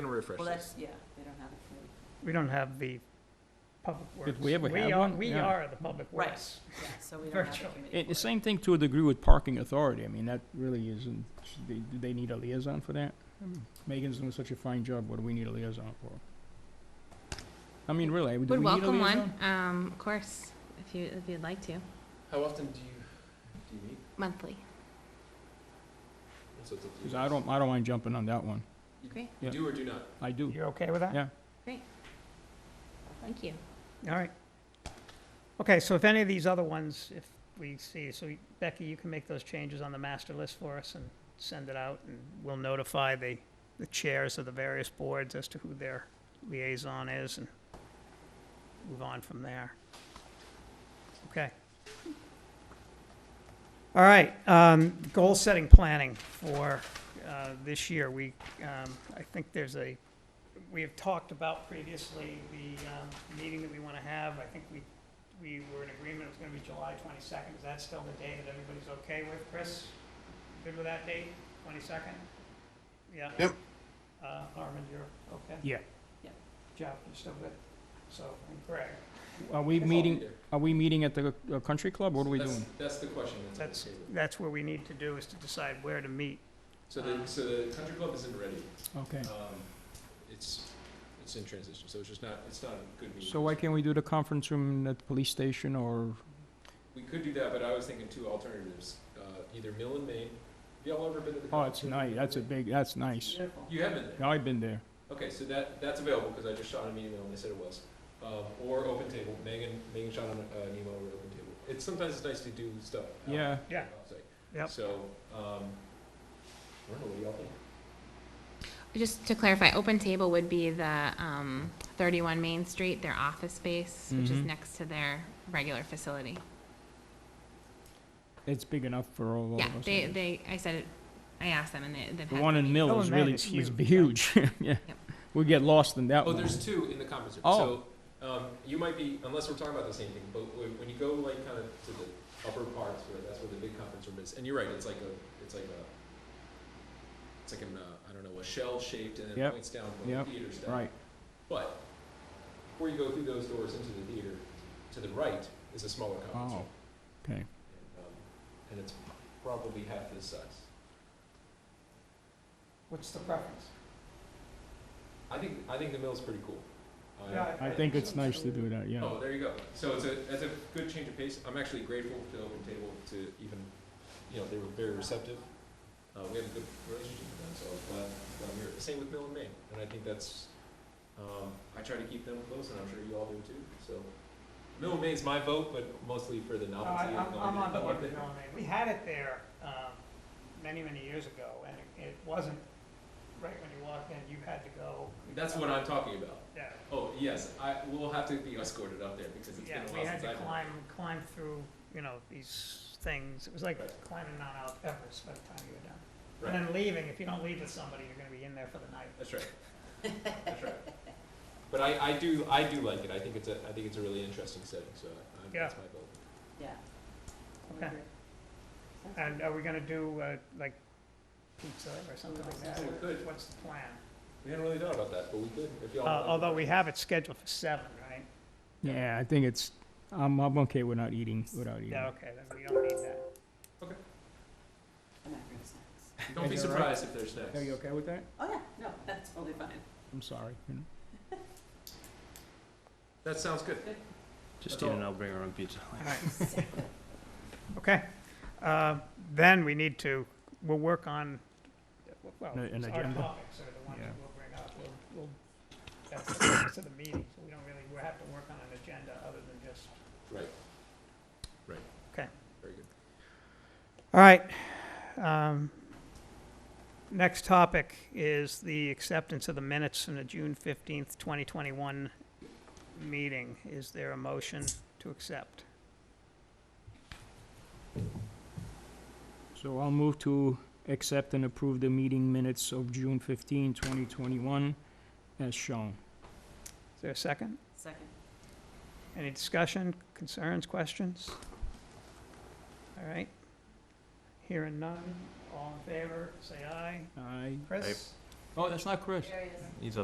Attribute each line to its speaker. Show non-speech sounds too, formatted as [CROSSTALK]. Speaker 1: gonna refresh
Speaker 2: Well,
Speaker 1: this.
Speaker 2: that's, yeah, they don't have it.
Speaker 3: We don't have the public works.
Speaker 4: we ever have
Speaker 3: are-
Speaker 4: one?
Speaker 3: We
Speaker 4: Yeah.
Speaker 3: are the public
Speaker 2: Right.
Speaker 3: works.
Speaker 2: Yeah, so we don't have a
Speaker 3: Virtually.
Speaker 2: committee
Speaker 4: It,
Speaker 2: for
Speaker 4: the
Speaker 2: it.
Speaker 4: same thing to a degree with parking authority. I mean, that really isn't, should they, do they need a liaison for that? I mean, Megan's doing such a fine job, what do we need a liaison for? I mean, really, do we need a
Speaker 5: Would welcome one,
Speaker 4: liaison?
Speaker 5: um, of course, if you, if you'd like to,
Speaker 1: How often do you, do you meet?
Speaker 5: monthly.
Speaker 1: So it's up to you
Speaker 4: 'Cause I
Speaker 1: guys.
Speaker 4: don't, I don't mind jumping on that one.
Speaker 5: Great,
Speaker 1: You
Speaker 4: yeah.
Speaker 1: Do or do not?
Speaker 4: I do.
Speaker 3: You're okay with that?
Speaker 4: Yeah.
Speaker 5: thank you.
Speaker 3: All right. Okay, so if any of these other ones, if we see, so Becky, you can make those changes on the master list for us and send it out, and we'll notify the, the chairs of the various boards as to who their liaison is and move on from there. Okay. All right, um, goal-setting planning for, uh, this year, we, um, I think there's a we have talked about previously, the um, meeting that we want to have, I think we, we were in agreement, it was going to be July 22nd. Is that still the day that everybody's okay with? Chris, good with that date, 22nd? Yeah?
Speaker 1: Yep.
Speaker 3: Uh, Armin, you're okay?
Speaker 4: Yeah.
Speaker 2: Yep.
Speaker 3: Jeff, you're still good? So, and Greg,
Speaker 4: Are we
Speaker 1: That's all
Speaker 4: meeting,
Speaker 1: there.
Speaker 4: are we meeting at the uh, country club? What are we
Speaker 1: That's-
Speaker 4: doing?
Speaker 1: That's the question that's on the
Speaker 3: that's,
Speaker 1: table.
Speaker 3: that's where we need to do, is to decide where to meet.
Speaker 1: So the, so the country club isn't ready.
Speaker 4: Okay.
Speaker 1: Um, it's, it's in transition, so it's just not, it's not a good meeting.
Speaker 4: So why can't we do the conference room at the police station or,
Speaker 1: We could do that, but I was thinking two alternatives, uh, either Mill and Main. Have y'all ever been to the?
Speaker 4: oh,
Speaker 1: conference
Speaker 4: it's
Speaker 1: room?
Speaker 4: nice, that's a big, that's nice.
Speaker 3: Beautiful.
Speaker 1: You have been there.
Speaker 4: Yeah, I've been there.
Speaker 1: Okay, so that, that's available, because I just shot an email and they said it was. Um, or Open Table, Megan, Megan shot an, uh, an email with Open Table. It's, sometimes it's nice to do stuff. out
Speaker 4: Yeah.
Speaker 3: Yeah.
Speaker 1: outside.
Speaker 3: Yep.
Speaker 1: So, um, I don't know, what do y'all think?
Speaker 5: Just to clarify, open table would be the, um, thirty-one Main Street, their office space, which is
Speaker 4: Mhm.
Speaker 5: next to their regular facility.
Speaker 4: It's big enough for all of us.
Speaker 5: Yeah,
Speaker 4: I
Speaker 5: they,
Speaker 4: guess.
Speaker 5: they, I said it, I asked them and they, they've
Speaker 4: The
Speaker 5: had.
Speaker 4: one in Mill
Speaker 3: Oh,
Speaker 4: is
Speaker 3: man,
Speaker 4: really,
Speaker 3: it's
Speaker 4: is
Speaker 3: really-
Speaker 4: huge, [LAUGHS] yeah. We get lost in that
Speaker 1: Oh,
Speaker 4: one.
Speaker 1: there's two in the conference room.
Speaker 4: Oh.
Speaker 1: So um, you might be, unless we're talking about the same thing, but wh- when you go like kind of to the upper parts, where that's where the big conference room is, and you're right, it's like a, it's like a, it's like an, uh, I don't know, a shell shaped, and then it
Speaker 4: Yep.
Speaker 1: points down from
Speaker 4: Yep.
Speaker 1: the theater stuff.
Speaker 4: Right,
Speaker 1: But before you go through those doors into the theater, to the right is a smaller conference
Speaker 4: Oh.
Speaker 1: room,
Speaker 4: okay.
Speaker 1: and, um, and it's probably half this size.
Speaker 3: What's the preference?
Speaker 1: I think I think the mill's pretty cool. Uh,
Speaker 3: Yeah,
Speaker 4: I think it's nice to do that, yeah.
Speaker 1: Oh, there you go. So it's a, that's a good change of pace. I'm actually grateful to Open Table to even, you know, they were very receptive. Uh, we have a good relationship with them, so I'm glad, glad we're here. Same with Mill and Main, and I think that's, um, I try to keep them close, and I'm sure you all do too, so. Mill and Main's my vote, but mostly for the
Speaker 3: No,
Speaker 1: novelty.
Speaker 3: I-
Speaker 1: and
Speaker 3: Uh, I'm, I'm on
Speaker 1: novelty. [LAUGHS]
Speaker 3: board with Melanie. We had it there, um, many, many years ago, and it- it wasn't, right when you walked in, you had to go.
Speaker 1: That's what I'm talking about.
Speaker 3: Yeah,
Speaker 1: Oh, yes, I, we'll have to be escorted up there because it's been a
Speaker 3: yeah,
Speaker 1: while since I've
Speaker 3: we
Speaker 1: been.
Speaker 3: had to climb, climb through, you know, these things. It was like climbing Mount Al- Everest by the time you were done.
Speaker 1: Right.
Speaker 3: And then leaving, if you don't leave with somebody, you're gonna be in there for the night.
Speaker 1: That's right. That's right. But I, I do, I do like it. I think it's a, I think it's a really interesting setting, so I, I- that's my vote.
Speaker 2: Yeah.
Speaker 3: Okay. And are we gonna do, uh, like pizza or something like that?
Speaker 1: Yeah, we could.
Speaker 3: What's the plan?
Speaker 1: We hadn't really thought about that, but we could, if y'all.
Speaker 3: Uh, although we have it scheduled for seven, right?
Speaker 4: Yeah, I think it's, I'm, I'm okay without eating, without eating.
Speaker 3: Yeah, okay, then we don't need that.
Speaker 2: I'm not gonna say.
Speaker 1: Don't be
Speaker 4: Is that right?
Speaker 1: surprised if there's next.
Speaker 4: Are you okay with that?
Speaker 2: Oh, yeah, no, that's totally fine.
Speaker 4: I'm sorry. you know.
Speaker 1: That sounds good.
Speaker 6: Just
Speaker 1: That's
Speaker 6: eat
Speaker 1: all.
Speaker 6: and I'll bring our own pizza.
Speaker 3: All right. Okay, Uh, then we need to, we'll work on, well, our
Speaker 4: An- an
Speaker 3: topics are the
Speaker 4: agenda?
Speaker 3: ones
Speaker 4: Yeah.
Speaker 3: that we'll bring up. We'll- We'll, that's the purpose of the meeting, so we don't really, we'll have to work on an agenda other than just.
Speaker 1: Right. Right.
Speaker 3: Okay.
Speaker 1: Very good.
Speaker 3: All right. Um, Next topic is the acceptance of the minutes in the June fifteenth, twenty twenty-one meeting. Is there a motion to accept?
Speaker 4: So I'll move to accept and approve the meeting minutes of June 15, 2021, as shown.
Speaker 3: Is there a second?
Speaker 2: Second.
Speaker 3: Any discussion, concerns, questions? All right. Hearing none, all in favor, say aye.
Speaker 4: I,
Speaker 3: Chris?
Speaker 4: Oh, that's not Chris.
Speaker 2: There he is.
Speaker 6: He's